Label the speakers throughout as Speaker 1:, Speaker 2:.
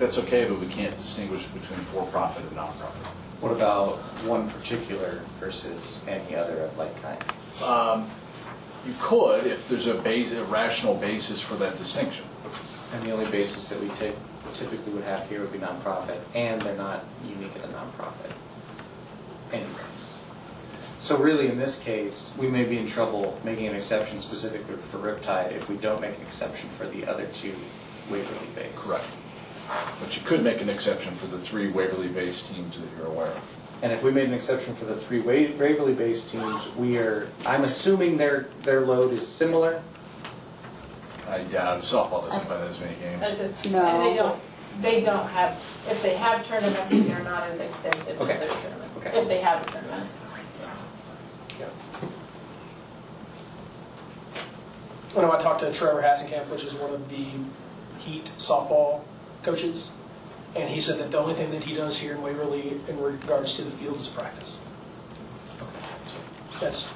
Speaker 1: That's okay, but we can't distinguish between for-profit and nonprofit.
Speaker 2: What about one particular versus any other of like kind?
Speaker 1: You could, if there's a base, a rational basis for that distinction.
Speaker 2: And the only basis that we typ- typically would have here would be nonprofit, and they're not unique in a nonprofit anyways. So really, in this case, we may be in trouble making an exception specifically for Riptide if we don't make an exception for the other two Waverly-based.
Speaker 1: But you could make an exception for the three Waverly-based teams that you're aware of.
Speaker 2: And if we made an exception for the three Wa- Waverly-based teams, we are, I'm assuming their, their load is similar?
Speaker 1: I doubt softball doesn't play as many
Speaker 3: That's
Speaker 1: games.
Speaker 3: just-
Speaker 4: No.
Speaker 3: And they don't, they don't have, if they have tournaments, they're not as extensive as
Speaker 2: Okay.
Speaker 3: their tournaments,
Speaker 2: Okay.
Speaker 3: if they have a tournament.
Speaker 5: I know I talked to Trevor Hasenkamp, which is one of the Heat softball coaches, and he said that the only thing that he does here in Waverly in regards to the field is practice. So That's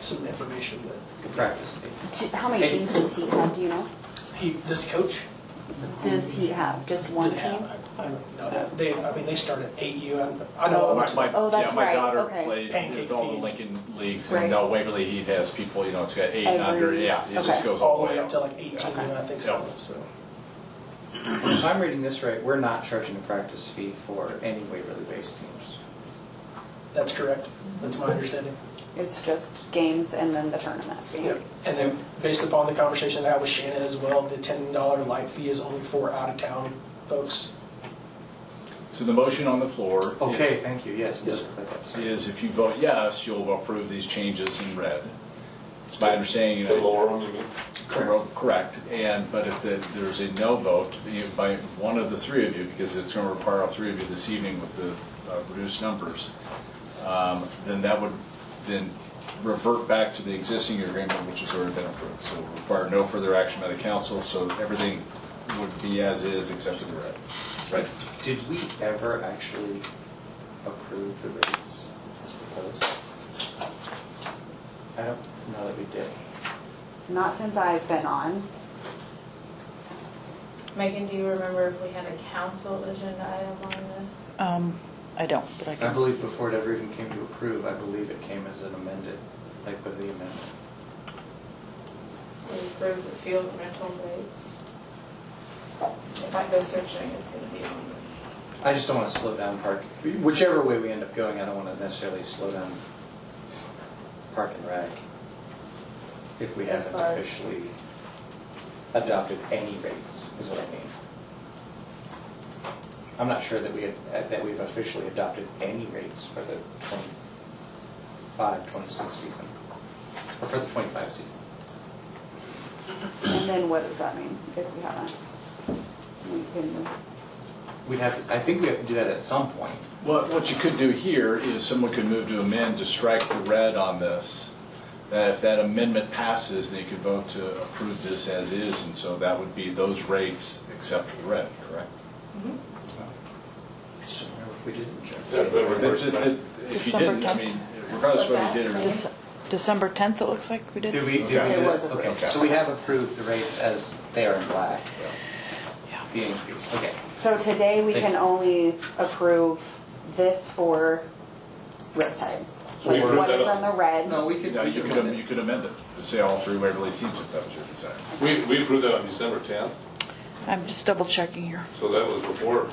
Speaker 5: some information that
Speaker 2: Good practice.
Speaker 4: Do- How many teams does he have, do you know?
Speaker 5: he, this coach
Speaker 4: Does he have just one
Speaker 5: did have.
Speaker 4: team?
Speaker 5: I I don't know that. They, I mean, they start at AU. I- I know.
Speaker 1: My- my-
Speaker 4: Oh, that's
Speaker 1: yeah, My
Speaker 4: right,
Speaker 1: daughter
Speaker 4: okay.
Speaker 1: played
Speaker 5: Pancake
Speaker 1: in all the
Speaker 5: feed.
Speaker 1: Lincoln leagues,
Speaker 4: Right.
Speaker 1: and now Waverly Heat has people, you know, it's got eight and under,
Speaker 4: Every-
Speaker 1: yeah, it just
Speaker 4: okay.
Speaker 1: goes
Speaker 5: All the way up to
Speaker 1: up.
Speaker 5: like 18, I think so. so.
Speaker 2: If I'm reading this right, we're not charging a practice fee for any Waverly-based teams.
Speaker 5: That's correct. That's my understanding.
Speaker 4: It's just games and then the tournament.
Speaker 5: Yep. And then, based upon the conversation I had with Shannon as well, the ten dollar light fee is only for out-of-town folks.
Speaker 1: So the motion on the floor.
Speaker 2: Okay, thank you, yes, it
Speaker 5: Yes.
Speaker 2: does look like that's-
Speaker 1: Is if you vote yes, you'll approve these changes in red. It's my understanding.
Speaker 6: The
Speaker 1: that-
Speaker 6: lower one, you mean?
Speaker 1: Cor- Correct, and, but if the- there's a no vote you- by one of the three of you, because it's going to require all three of you this evening with the uh, reduced numbers, um, then that would then revert back to the existing agreement, which has already been approved. So it would require no further action by the council, so everything would be as is except for the red. Right?
Speaker 2: Did we ever actually approve the rates as proposed? I don't know that we did.
Speaker 4: Not since I've been on.
Speaker 3: Megan, do you remember if we had a council agenda item on this?
Speaker 7: Um, I don't, but I
Speaker 2: I
Speaker 7: can.
Speaker 2: believe before it ever even came to approve, I believe it came as an amended, like with the amendment.
Speaker 3: We approved the field rental rates. If I go searching, it's gonna be on
Speaker 2: I just don't want to slow down park, whichever way we end up going, I don't want to necessarily slow down park and rec if we
Speaker 3: As
Speaker 2: haven't
Speaker 3: far as-
Speaker 2: officially adopted any rates, is what I mean. I'm not sure that we have, uh, that we've officially adopted any rates for the 25, 26 season, or for the 25 season.
Speaker 4: And then what does that mean if we haven't? We can,
Speaker 2: We have, I think we have to do that at some point.
Speaker 1: Well, what you could do here is someone could move to amend to strike the red on this. That if that amendment passes, then you could vote to approve this as is, and so that would be those rates except for the red, correct?
Speaker 2: I just don't remember if we did or not.
Speaker 6: Yeah, that would work, but-
Speaker 1: If you didn't, I mean, regardless of whether you did or not.
Speaker 7: Dece- December 10th, it looks like we did.
Speaker 2: Did we, did we do
Speaker 1: Okay.
Speaker 4: It
Speaker 2: this?
Speaker 4: was
Speaker 2: Okay,
Speaker 4: approved.
Speaker 2: so we have approved the rates as they are in black,
Speaker 7: Yeah.
Speaker 2: the increase, okay.
Speaker 4: so today we
Speaker 2: Thank
Speaker 4: can
Speaker 2: you.
Speaker 4: only approve this for Riptide.
Speaker 6: So we
Speaker 4: Like what
Speaker 6: approve
Speaker 4: is
Speaker 6: that
Speaker 4: on the red?
Speaker 2: No, we could,
Speaker 1: No,
Speaker 2: we
Speaker 1: you
Speaker 2: could
Speaker 1: could, am-
Speaker 2: amend
Speaker 1: you
Speaker 2: it.
Speaker 1: could amend it, to say all three Waverly teams if that was your desire.
Speaker 6: We, we approved that on December 10th,
Speaker 7: I'm just double checking here.
Speaker 6: so that was before,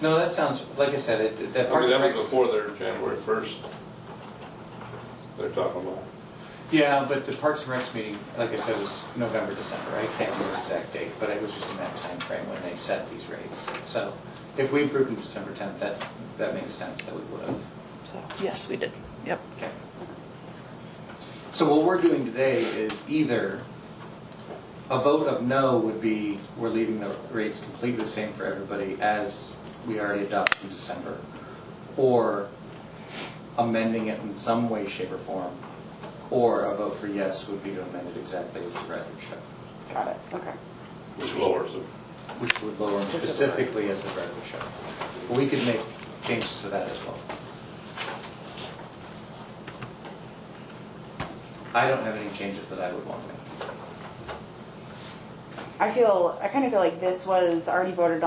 Speaker 2: No, that sounds, like I said, it, that
Speaker 6: I
Speaker 2: part
Speaker 6: mean, that was
Speaker 2: corrects.
Speaker 6: before their January 1st. They're talking about.
Speaker 2: Yeah, but the Parks and Recs meeting, like I said, was November, December, I can't remember the exact date, but it was just in that time frame when they set these rates. So if we approved them December 10th, that, that makes sense that we would have.
Speaker 7: So, yes, we did. Yep.
Speaker 2: Okay. So what we're doing today is either, a vote of no would be, we're leaving the rates completely the same for everybody as we already adopted in December, or amending it in some way, shape, or form, or a vote for yes would be to amend it exactly as the record show,
Speaker 4: Got it, okay.
Speaker 6: which lowers them.
Speaker 2: which would lower them specifically as the record show. But we could make changes to that as well. I don't have any changes that I would want to make.
Speaker 4: I feel, I kind of feel like this was already voted on.